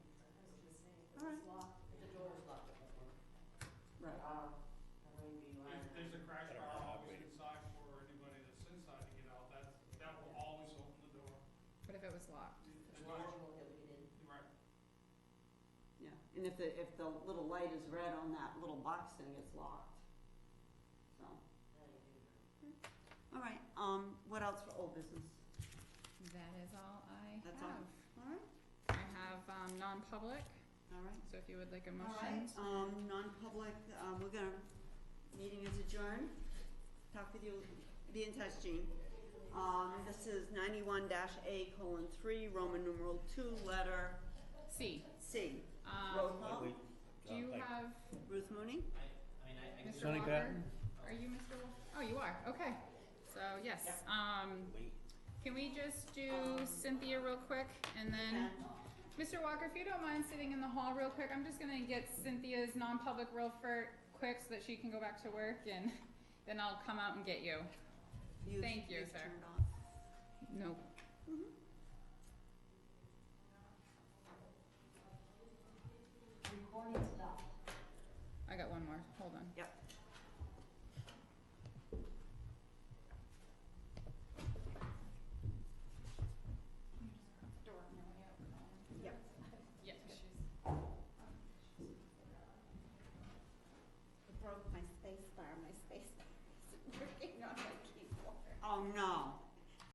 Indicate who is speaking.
Speaker 1: And if the, if the little light is red on that little box, then it's locked. So, all right, um, what else for old business?
Speaker 2: That is all I have.
Speaker 1: That's all. All right,
Speaker 2: I have, um, non-public,
Speaker 1: all right.
Speaker 2: so if you would like a
Speaker 1: All right,
Speaker 2: motion.
Speaker 1: um, non-public, uh, we're gonna, meeting is adjourned. Talk with you, be in touch, Jean. Um, this is ninety-one dash A colon three, Roman numeral two, letter
Speaker 2: C,
Speaker 1: C. Roll
Speaker 2: um,
Speaker 1: call,
Speaker 3: Wait,
Speaker 2: do you have
Speaker 1: Ruth Mooney?
Speaker 2: Mr.
Speaker 3: Sonny
Speaker 2: Walker?
Speaker 3: Patton?
Speaker 2: Are you Mr. Walker? Oh, you are, okay. So, yes, um,
Speaker 3: Wait.
Speaker 2: can we just do Cynthia real quick and then, Mr. Walker, if you don't mind sitting in the hall real quick, I'm just gonna get Cynthia's non-public real for, quick so that she can go back to work and then I'll come out and get you.
Speaker 1: You've-
Speaker 2: Thank you,
Speaker 1: you've
Speaker 2: sir.
Speaker 1: turned off.
Speaker 2: Nope.
Speaker 4: Recording stopped.
Speaker 2: I got one more, hold on.
Speaker 1: Yep.
Speaker 2: Door on your way out, Colin.
Speaker 1: Yep.
Speaker 2: Yes, she's.
Speaker 4: It broke my space bar, my space bar isn't working on my keyboard.
Speaker 1: Oh, no.